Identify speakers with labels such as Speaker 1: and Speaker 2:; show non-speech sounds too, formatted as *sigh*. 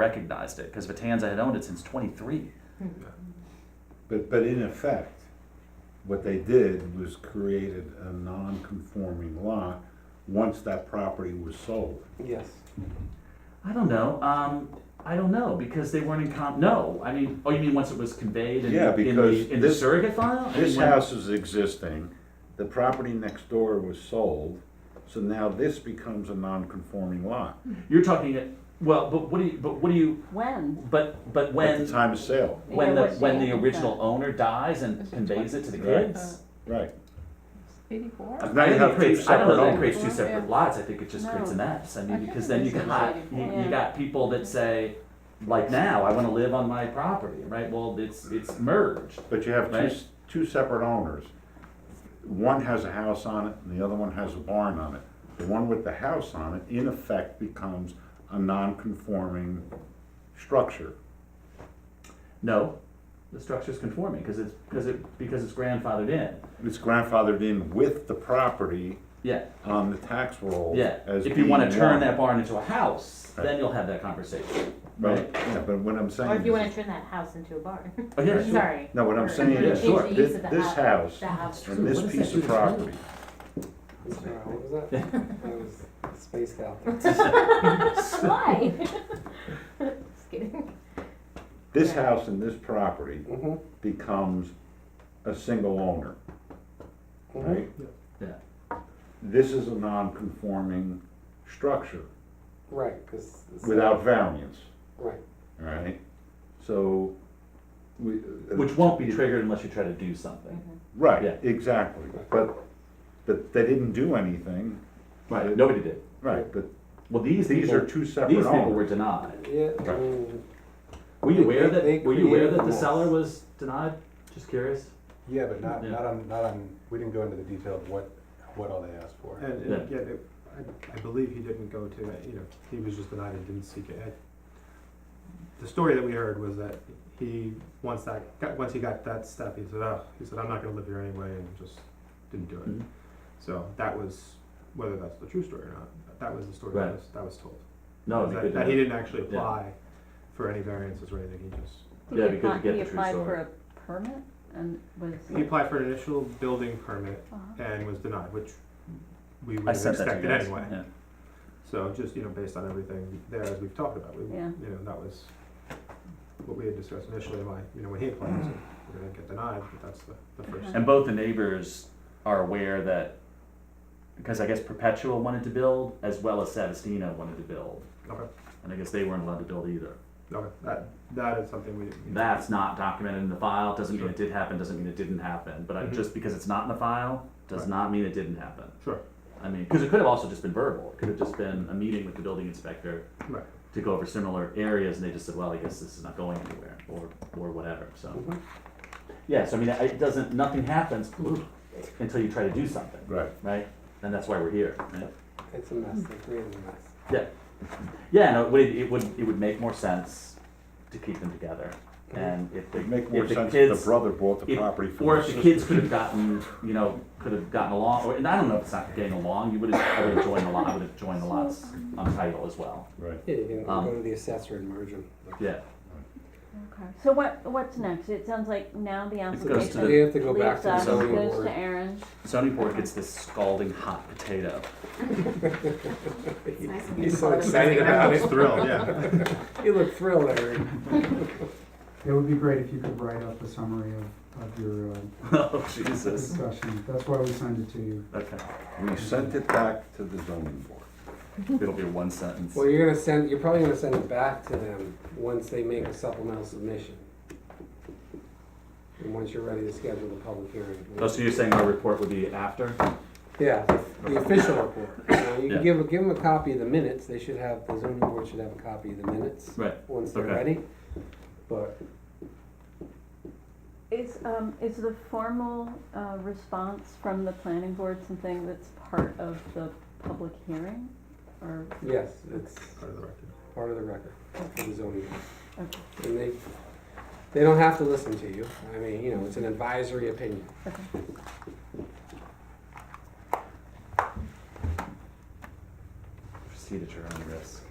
Speaker 1: recognized it because Vitanza had owned it since 23.
Speaker 2: But, but in effect, what they did was created a non-conforming lot once that property was sold.
Speaker 3: Yes.
Speaker 1: I don't know. Um, I don't know because they weren't in comp. No, I mean, oh, you mean once it was conveyed in,
Speaker 2: Yeah,
Speaker 1: in,
Speaker 2: because
Speaker 1: the, in the
Speaker 2: this-
Speaker 1: surrogate file? I
Speaker 2: This
Speaker 1: mean, when-
Speaker 2: house is existing, the property next door was sold, so now this becomes a non-conforming lot
Speaker 1: You're talking. It, well, but what do you? But what do you?
Speaker 4: When?
Speaker 1: But but
Speaker 2: at
Speaker 1: when
Speaker 2: the time of sale,
Speaker 1: when
Speaker 4: Yeah,
Speaker 1: the
Speaker 4: what
Speaker 1: when
Speaker 4: date
Speaker 1: the
Speaker 4: is
Speaker 1: original
Speaker 4: that?
Speaker 1: owner dies and
Speaker 5: Is it
Speaker 1: conveys it to the
Speaker 2: Right.
Speaker 1: kids.
Speaker 2: right?
Speaker 5: Eighty-four?
Speaker 1: I
Speaker 2: Now you
Speaker 1: think
Speaker 2: have
Speaker 1: it
Speaker 2: two
Speaker 1: creates, I don't know
Speaker 2: separate
Speaker 1: that it creates two
Speaker 5: owners.
Speaker 1: separate lots. I think it just creates a
Speaker 5: No.
Speaker 1: mess. I
Speaker 5: I
Speaker 1: mean,
Speaker 5: think
Speaker 1: because
Speaker 5: it
Speaker 1: then you
Speaker 5: was
Speaker 1: got you,
Speaker 5: eighty-four.
Speaker 1: you got people that say, like now, I want to live on my property, right? Well, it's it's merged.
Speaker 2: But you have two,
Speaker 1: Right.
Speaker 2: s- two separate owners. One has a house on it and the other one has a barn on it. The one with the house on it, in effect, becomes a non-conforming structure.
Speaker 1: No, the structure's conforming because it's because it because it's grandfathered in.
Speaker 2: It's grandfathered in with the property
Speaker 1: Yeah,
Speaker 2: on the tax roll.
Speaker 1: yeah.
Speaker 2: as
Speaker 1: If you want
Speaker 2: being
Speaker 1: to turn
Speaker 2: one.
Speaker 1: that barn into a house,
Speaker 2: Right.
Speaker 1: then you'll have that conversation,
Speaker 2: But-
Speaker 1: right?
Speaker 2: Yeah, but what I'm saying.
Speaker 4: Or if you
Speaker 2: is-
Speaker 4: wanna turn that house into a
Speaker 5: *laughs*
Speaker 4: barn.
Speaker 1: Oh, yeah, sure.
Speaker 4: Sorry.
Speaker 2: No, what I'm
Speaker 4: Or
Speaker 2: saying
Speaker 1: Yeah,
Speaker 2: is,
Speaker 1: sure.
Speaker 4: change the use
Speaker 2: this
Speaker 4: of the
Speaker 2: this house
Speaker 4: The
Speaker 2: *laughs*
Speaker 4: house. *laughs*
Speaker 2: and this
Speaker 1: What does that
Speaker 2: piece
Speaker 1: do
Speaker 2: of
Speaker 1: to the road?
Speaker 2: property,
Speaker 3: Sorry, what was *laughs* that? I was spaced out there.
Speaker 5: *laughs*
Speaker 4: Why? Just kidding.
Speaker 2: this
Speaker 4: Yeah.
Speaker 2: house and this property
Speaker 3: *laughs* Mm-hmm.
Speaker 2: becomes a single owner, right?
Speaker 1: Yeah.
Speaker 2: This is a non-conforming structure
Speaker 3: Right, because.
Speaker 2: without variance,
Speaker 3: Right.
Speaker 2: all right? So, we.
Speaker 1: *laughs*
Speaker 2: uh,
Speaker 1: Which won't be triggered unless you try to do something.
Speaker 2: Right,
Speaker 1: Yeah.
Speaker 2: exactly, but, but they didn't do anything,
Speaker 1: Right. Nobody did.
Speaker 2: right, but
Speaker 1: Well, these
Speaker 2: these
Speaker 1: people,
Speaker 2: are two
Speaker 1: these
Speaker 2: separate
Speaker 1: people were
Speaker 2: owners.
Speaker 1: denied.
Speaker 3: Yeah, I
Speaker 2: Right.
Speaker 3: mean,
Speaker 1: Were you
Speaker 3: They-
Speaker 1: aware
Speaker 3: they- they
Speaker 1: that, were you aware
Speaker 3: created
Speaker 1: that the
Speaker 3: the
Speaker 1: seller
Speaker 3: mess.
Speaker 1: was denied? Just curious.
Speaker 6: Yeah, but not,
Speaker 1: Yeah.
Speaker 6: not on, not on, we didn't go into the detail of what, what all they asked for.
Speaker 7: And, and yet, it- I, I believe he didn't go to, it, you know, he was just denied and didn't seek it. I- The story that we heard was that he, once that, got- once he got that step, he said, oh, he said, I'm not gonna live here anyway, and just didn't do
Speaker 1: Mhm.
Speaker 7: it. So that was, whether that's the true story or not, that was the story
Speaker 1: Right.
Speaker 7: that was, that was told.
Speaker 1: No, it'd be
Speaker 7: That,
Speaker 1: good to
Speaker 7: that he
Speaker 1: know.
Speaker 7: didn't actually apply for any variances or anything, he just,
Speaker 1: Yeah, it'd be good to get the true
Speaker 5: He applied for
Speaker 1: story.
Speaker 5: a permit and was.
Speaker 7: he applied for an initial building permit
Speaker 5: Uh-huh.
Speaker 7: and was denied, which
Speaker 1: I
Speaker 7: we would have
Speaker 1: sent that to you
Speaker 7: expected
Speaker 1: guys.
Speaker 7: anyway.
Speaker 1: Yeah.
Speaker 7: So just, you know, based on everything there, as we've talked about, we, you
Speaker 5: Yeah.
Speaker 7: know, that was what we had discussed initially, why, you know, when he applied, he said, we're gonna get denied, but that's the, the first.
Speaker 1: And both the neighbors are aware that, because I guess Perpetual wanted to build as well as Savastina wanted to build,
Speaker 7: Okay,
Speaker 1: and I guess they weren't allowed to build either.
Speaker 7: okay, that, that is something we. you know,
Speaker 1: That's not documented in the file. Doesn't mean
Speaker 7: Sure.
Speaker 1: it did happen. Doesn't mean it didn't happen. But I,
Speaker 7: Mhm.
Speaker 1: just because it's not in the file does
Speaker 7: Right.
Speaker 1: not mean it didn't happen.
Speaker 7: Sure,
Speaker 1: I mean, because it could have also just been verbal. It could have just been a meeting with the building inspector
Speaker 7: right,
Speaker 1: to go over similar areas, and they just said, well, I guess this is not going anywhere, or, or whatever, so.
Speaker 7: Mm-hmm.
Speaker 3: Mhm.
Speaker 1: Yeah, so I mean, it doesn't, nothing happens
Speaker 7: Mm-hmm.
Speaker 1: until you try to do something,
Speaker 2: Right,
Speaker 1: right? And that's why we're here, right?
Speaker 3: it's a mess, they created a mess.
Speaker 1: Yeah. Yeah, no, it would, it would, it would make more sense to keep them together, and if the,
Speaker 2: it'd make more
Speaker 1: if the
Speaker 2: sense if
Speaker 1: kids.
Speaker 2: the brother bought the
Speaker 1: if-
Speaker 2: property from
Speaker 1: Or
Speaker 2: the
Speaker 1: if the
Speaker 2: sister.
Speaker 1: kids could have gotten, you know, could have gotten along, or, and I don't know if it's not getting along, you would have, I would have joined the lot, I would have joined the lots on title as well,
Speaker 2: Right.
Speaker 3: Yeah, you can
Speaker 1: Um,
Speaker 3: go to the assessor and merge them.
Speaker 1: yeah.
Speaker 5: Okay, so what, what's next? It sounds like now the
Speaker 1: goes to
Speaker 5: application
Speaker 3: We have to go back
Speaker 5: leaves
Speaker 3: to the
Speaker 5: us,
Speaker 3: zoning
Speaker 5: goes
Speaker 3: board.
Speaker 5: to Aaron.
Speaker 1: Zoning board gets this scalding hot potato. *laughs*
Speaker 3: He's so excited
Speaker 7: I
Speaker 3: about
Speaker 7: was
Speaker 3: it.
Speaker 7: thrilled, yeah.
Speaker 3: You look
Speaker 1: *laughs*
Speaker 3: thrilled, Eric.
Speaker 8: It would be great if you could write up a summary of, of your uh,
Speaker 1: Oh, Jesus.
Speaker 8: discussion. That's why we sent it to you.
Speaker 1: Okay.
Speaker 2: We sent it back to the zoning board.
Speaker 1: It'll be one sentence.
Speaker 3: Well, you're gonna send, you're probably gonna send it back to them once they make a supplemental submission. And once you're ready to schedule the public hearing.
Speaker 1: Oh, so you're saying our report would be after?
Speaker 3: Yeah, the official report. You know, You
Speaker 1: Yeah.
Speaker 3: can give, give them a copy of the minutes, they should have, the zoning board should have a copy of the minutes.
Speaker 1: Right.
Speaker 3: Once they're
Speaker 1: Okay.
Speaker 3: ready, but
Speaker 5: Is, um, is the formal, uh, response from the planning board something that's part of the public hearing? Or,
Speaker 3: yes, it's
Speaker 7: Part of the record.
Speaker 3: part of the record for the zoning board.
Speaker 5: okay,
Speaker 3: And they, they don't have to listen to you, I mean, you know, it's an advisory opinion.
Speaker 5: okay.
Speaker 1: Proceed at your own risk.